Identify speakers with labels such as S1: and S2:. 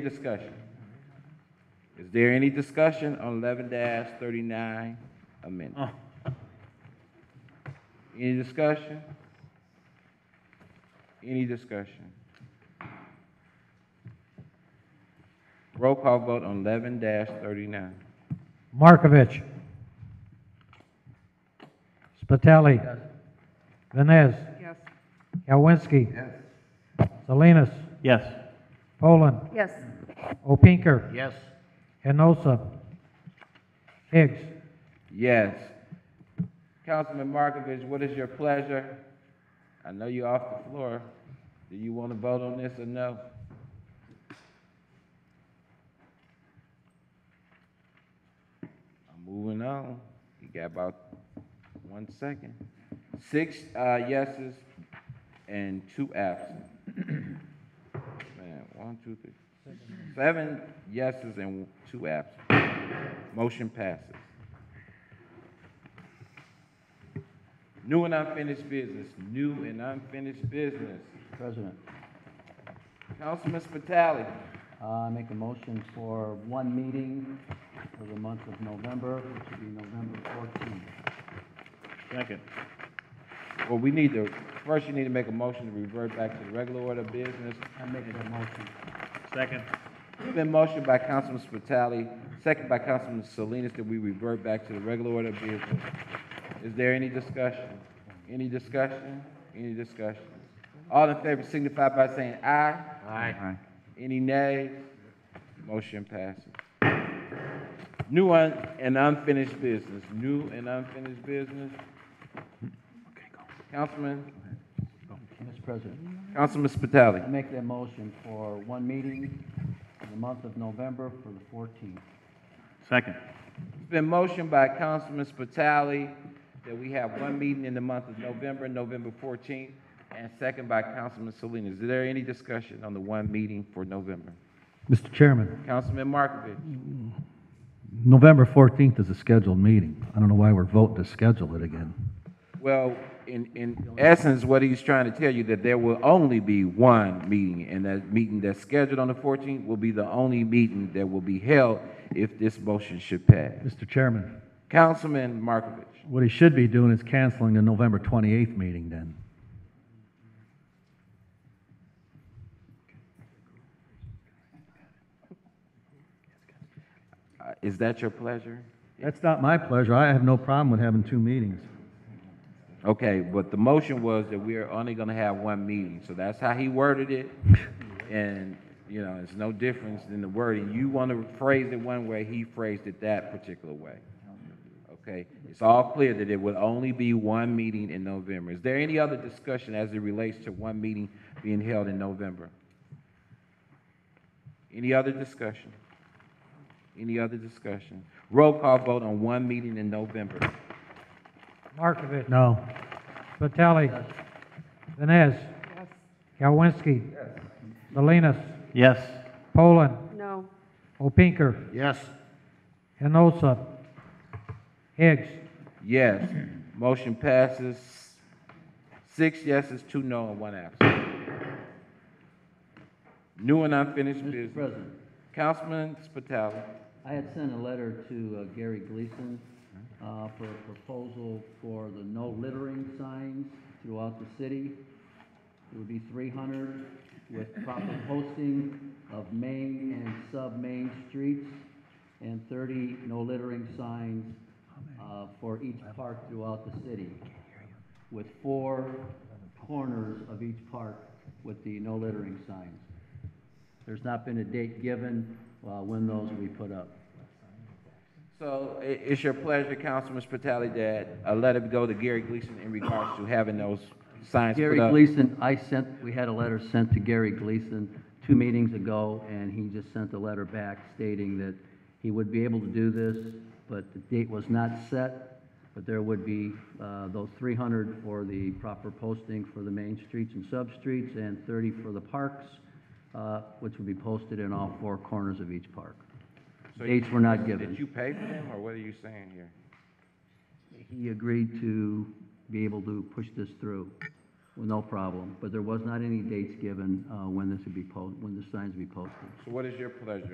S1: Discussion. Is there any discussion on eleven thirty-nine amendment? Any discussion? Any discussion? Roll call vote on eleven thirty-nine.
S2: Markovich. Spitali. Vines.
S3: Yes.
S2: Yawinski. Salinas.
S4: Yes.
S2: Poland.
S3: Yes.
S2: Opinker.
S4: Yes.
S2: Enosa. Higgs.
S1: Yes. Councilman Markovich, what is your pleasure? I know you're off the floor. Do you want to vote on this or no? I'm moving on. You got about one second. Six uh, yeses and two absent. Man, one, two, three. Seven yeses and two absent. Motion passes. New and unfinished business, new and unfinished business.
S4: President,
S1: Councilman Spitali,
S4: uh, I make a motion for one meeting for the month of November, which would be November 14th. Second.
S1: well, we need to, first you need to make a motion to revert back to the regular order of business.
S4: I make that motion. Second.
S1: It's Been motioned by Councilman Spitali, second by Councilman Salinas that we revert back to the regular order of business. Is there any discussion? Any discussion? Any discussion? All in favor signify by saying aye. Aye. Any nays? Motion passes. New un- and unfinished business, new and unfinished business. Councilman,
S4: Mr. President,
S1: Councilman
S4: I
S1: Spitali.
S4: make that motion for one meeting for the month of November for the 14th.
S5: Second.
S1: It's been motioned by Councilman Spitali that we have one meeting in the month of November, November fourteenth, and second by Councilman Salinas. Is there any discussion on the one meeting for November?
S6: Mr. Chairman,
S1: Councilman Markovich?
S6: November 14th is a scheduled meeting. I don't know why we're voting to schedule it again.
S1: Well, in, in essence, what he's trying to tell you, that there will only be one meeting, and that meeting that's scheduled on the fourteenth will be the only meeting that will be held if this motion should pass.
S6: Mr. Chairman,
S1: Councilman Markovich,
S6: what he should be doing is canceling the November 28th meeting then.
S1: uh, is that your pleasure?
S6: That's not my pleasure. I have no problem with having two meetings.
S1: Okay, but the motion was that we are only gonna have one meeting, so that's how he worded it. And, you know, it's no difference in the wording. You wanna phrase it one way, he phrased it that particular way. Okay, it's all clear that it would only be one meeting in November. Is there any other discussion as it relates to one meeting being held in November? Any other discussion? Any other discussion? Roll call vote on one meeting in November.
S2: Markovich.
S6: No.
S2: Spitali. Vines.
S3: Yes.
S2: Yawinski. Salinas.
S5: Yes.
S2: Poland.
S3: No.
S2: Opinker.
S5: Yes.
S2: Enosa. Higgs.
S1: Yes. Motion passes. Six yeses, two no, and one absent. New and unfinished
S4: Mr.
S1: business.
S4: President,
S1: Councilman Spitali.
S4: I had sent a letter to uh, Gary Gleason uh, for a proposal for the no littering signs throughout the city. It would be 300 with proper posting of main and sub-main streets and 30 no littering signs uh, for each park throughout the city with four corners of each park with the no littering signs. There's not been a date given uh, when those will be put up.
S1: So i- it's your pleasure, Councilman Spitali, that a letter go to Gary Gleason in regards to having those signs put
S4: Gary
S1: up.
S4: Gleason, I sent, we had a letter sent to Gary Gleason two meetings ago, and he just sent a letter back stating that he would be able to do this, but the date was not set, but there would be uh, those 300 for the proper posting for the main streets and sub-streets, and 30 for the parks, uh, which would be posted in all four corners of each park.
S1: So you-
S4: Dates were not
S1: Did
S4: given.
S1: you pay for them, or what are you saying here?
S4: He agreed to be able to push this through. with no problem, but there was not any dates given uh, when this would be posted, when the signs would be posted.
S1: So what is your pleasure?